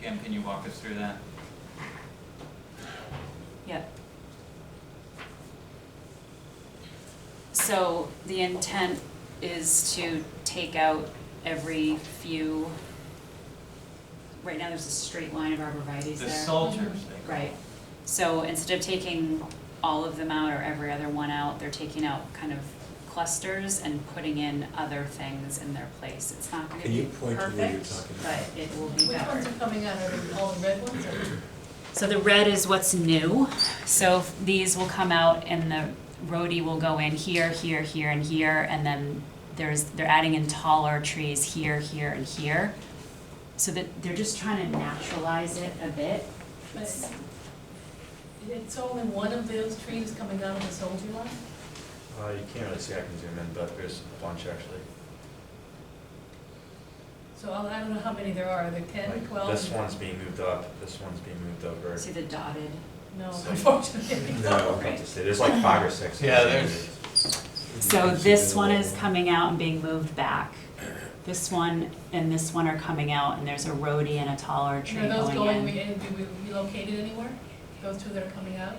Kim, can you walk us through that? Yep. So the intent is to take out every few, right now there's a straight line of arborvitae's there. The Psalters, they call Right, so instead of taking all of them out or every other one out, they're taking out kind of clusters and putting in other things in their place. It's not gonna Can you be point to where you're perfect, talking but about? it will be better. Which ones are coming out, are they all the red ones or? So the red is what's new, so f- these will come out and the roadie will go in here, here, here, and here, and then there's, they're adding in taller trees here, here, and here. So that, they're just trying to naturalize it a bit. but it's- It's only one of those trees coming out of the soldier line? Uh, you can't really see, I can zoom in, but there's a bunch actually. So I I don't know how many there are, are there ten, Like, twelve? This one's being moved up, this one's being moved over. See the dotted, No, So- unfortunately. No, not to say, there's like five or six. Yeah, there's- so this one is coming out and being moved back. This one and this one are coming out, and there's a roadie and a taller tree Are those going, going in. re- and do we relocated anywhere? Those two that are coming out?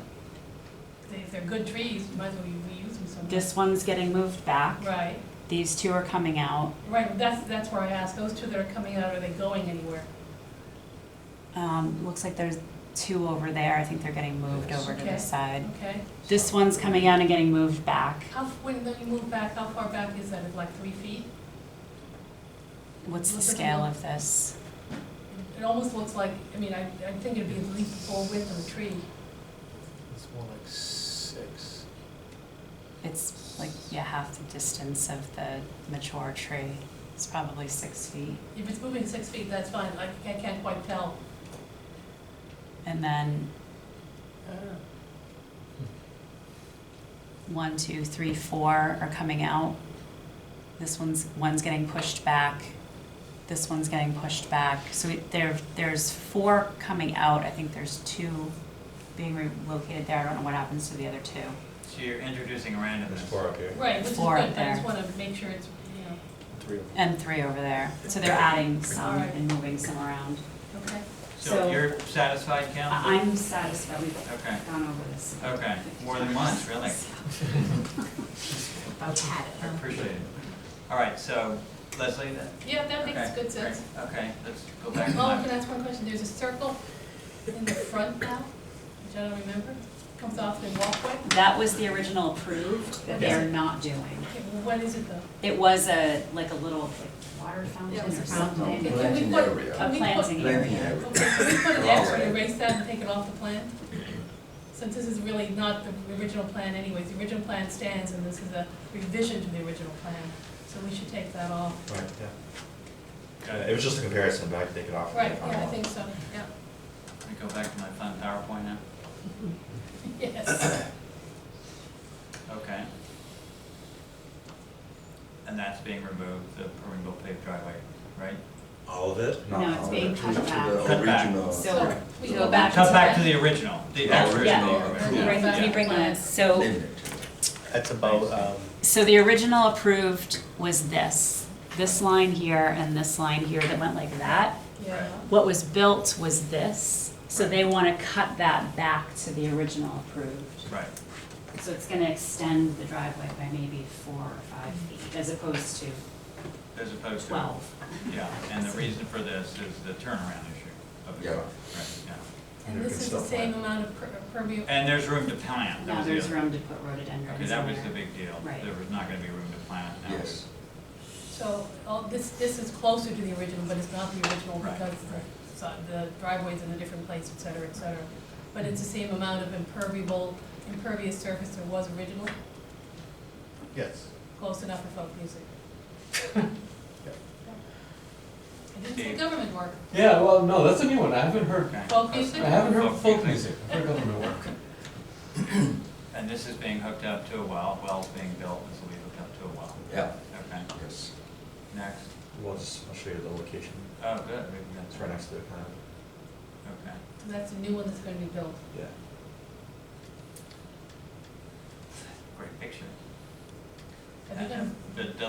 They- If they're good trees, you might as well reuse them somewhere. This one's getting moved back, Right, these two are coming out, right, that's, that's where I asked, those two that are coming out, are they going anywhere? Um, looks like there's two over there, I think they're getting moved over to Okay. this side. Okay, This one's coming out and getting moved back. how, f- when you move back, how far back is that, Is it like three feet? What's the Look at scale them. of this? It almost looks like, I mean, I, I think it'd be at least the full width of a tree. It's more like six. It's like, yeah, half the distance of the mature tree. It's probably six feet. If it's moving six feet, that's fine, I ca- I can't quite tell. And then uh, one, two, three, four are coming out. This one's, one's getting pushed back. This one's getting pushed back. So it- there, there's four coming out. I think there's two being relocated there. I don't know what happens to the other two. So you're introducing There's randomness. four up here. Right, which is good, Four but up I there. just wanna make sure it's, you know, Three of And three over there. So they're adding some Alright. and moving some around. okay? So So- you're satisfied, Kim? I- I'm satisfied we've Okay, gone over this. okay, more than once, really. About had I appreciate it. All right, so Leslie, that, Yeah, that makes okay, good great. sense. okay, let's go Oh, back to can I my, ask one question? There's a circle in the front now, which I don't remember, comes off the walkway. That was the original approved that they're not doing. Okay, well, what is it though? It was a, like a little like, water fountain Yeah, it was or a something. Okay, can Planting we put- area. A can we put- planting area. area. Okay, can we put an They're all X and right. erase that and take it off the plan? Since this is really not the original plan anyways, the original plan stands and this is a revision to the original plan, so we should take that off. Right, yeah. Uh, It was just a comparison, but I could take it off. Right, yeah, I think so, yeah, we go back to my fun PowerPoint now, yes. okay. And that's being removed, the permeable paved driveway, right? All of it? Not No, it's all of being it. cut back. Cut back. So we go So- back to Cut back to that. the original, the The actual. original, original, yeah. Right, can you bring that? So, That's about, um, so the original approved was this, this line here and this line here that went like that. Yeah, What was built was this, so they want to cut that back to the original approved. Right, So it's going to extend the driveway by maybe four or five feet as opposed to as opposed to. 12. Yeah, and the reason for this is the turnaround issue of the Yeah. car, right, yeah. and Under this is the consult plan. same amount of per- permeable. And there's room to plant, that Now was the there's other- room to put rhododendrons Okay, that in was there. the big deal, Right. there was not gonna be room to plant, now Yes. So, all, this, this is closer to the original, but it's not the original Right, because right. so- the driveway's in a different place, et cetera, et cetera. But it's the same amount of impermeable, impervious surface there was original, yes. close enough for folk music. I didn't say Dave. government work, Yeah, well, no, that's a new one. I haven't heard, Okay. folk I music? haven't heard folk Folk music. music. I've heard government work. And this is being hooked up to a well, well's being built, this will be hooked up to a well, Yeah, okay, yes. next, We'll just, I'll show you the location. oh, good, maybe It's that's right right, next to the kind of, okay. So That's a new one that's gonna be built. yeah. Great picture. Are they gonna Uh-huh. The, the